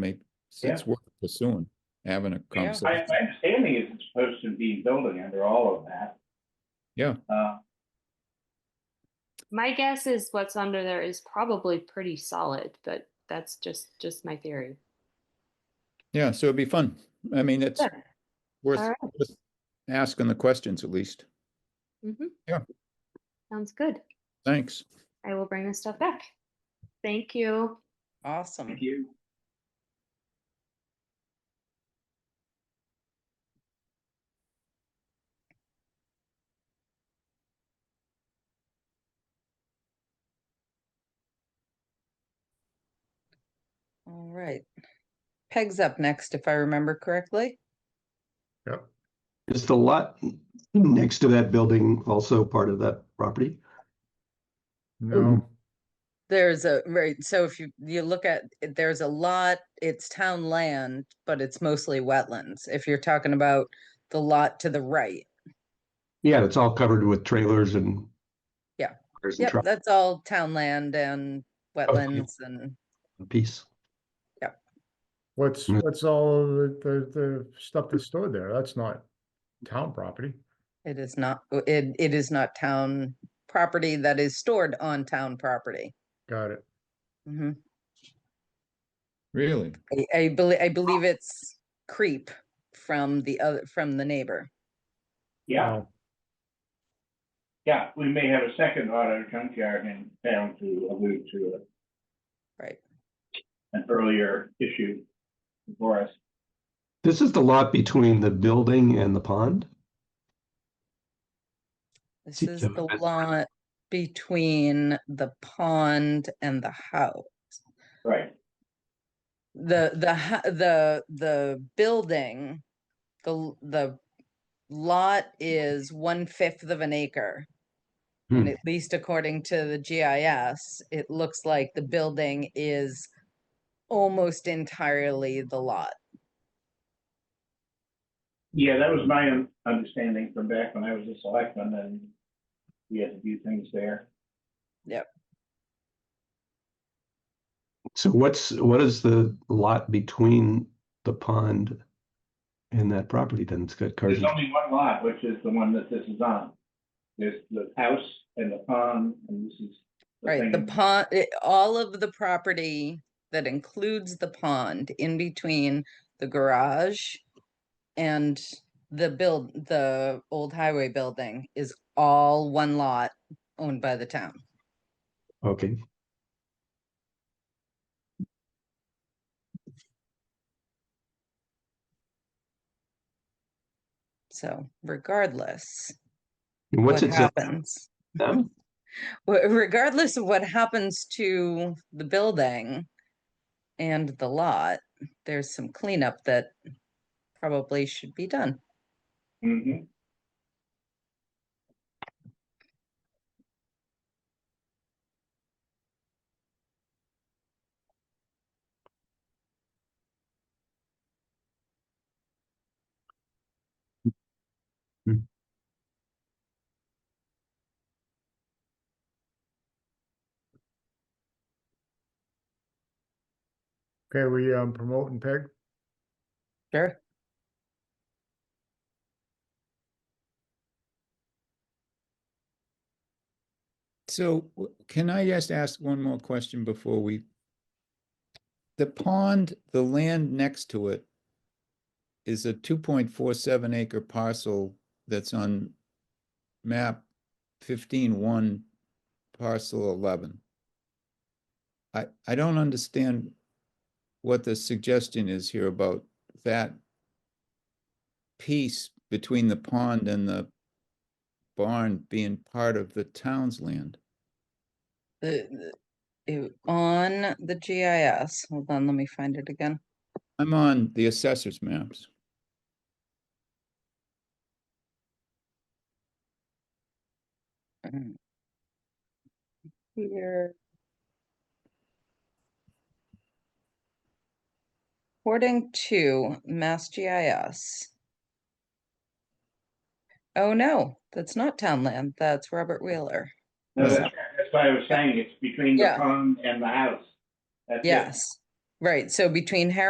make, it's worth pursuing, having a My, conversation. my understanding is it's supposed to be building under all of that. Yeah. Uh, My guess is what's under there is probably pretty solid, but that's just just my theory. Yeah, so it'd be fun. I mean, it's Sure. worth, All worth asking the questions at least. Mm-hmm. Yeah. Sounds good. Thanks. I will bring this stuff back. Thank you. Awesome. thank you. All right. Peg's up next, if I remember correctly. Is the lot next to that building also part of that property? No. There's a, right, so if you, you look at, it, there's a lot, it's town land, but it's mostly wetlands. If you're talking about the lot to the right. Yeah, it's all covered with trailers and. Yeah. There's a Yep, truck that's all town land and wetlands and piece. What's, Mm. what's all the, the, the stuff that's stored there? That's not town property. it is not, uh, it, it is not town property that is stored on town property. Got it. Mhm. Really? I, I believe, I believe it's creep from the other, from the neighbor. Yeah, Wow. yeah, we may have a second auto junkyard in town to allude to a- Right. an earlier issue for us. This is the lot between the building and the pond? This See, is Gemma, the that's- lot between the pond and the house. Right, The, the, ho- the, the building, the, l- the lot is one fifth of an acre. And Hmm. at least according to the GIS, it looks like the building is almost entirely the lot. yeah, that was my un- understanding from back when I was a selectman and we had to do things there. So what's, what is the lot between the pond and that property then? It's got cars. There's only one lot, which is the one that this is on. There's the house and the pond, and this is. Right, the thing. pond, eh, all of the property that includes the pond in between the garage and the build, the old highway building is all one lot owned by the town. Okay, So regardless And what what's it? sell happens, them? wh- regardless of what happens to the building and the lot, there's some cleanup that probably should be done. Mhm. Okay, we, um, promoting Peg? Sure. So w- can I just ask one more question before we? The pond, the land next to it is a two point four seven acre parcel that's on map fifteen one parcel eleven. I, I don't understand what the suggestion is here about that piece between the pond and the barn being part of the town's land. The, the- it- on the GIS, hold on, let me find it again. I'm on the assessor's maps. Mm. Here. According to Mass GIS. Oh, no, that's not town land. That's Robert Wheeler. No, that's, right, that's why I was saying, it's between the Yeah. pond and the house. That's it. Yes, right. So between Harris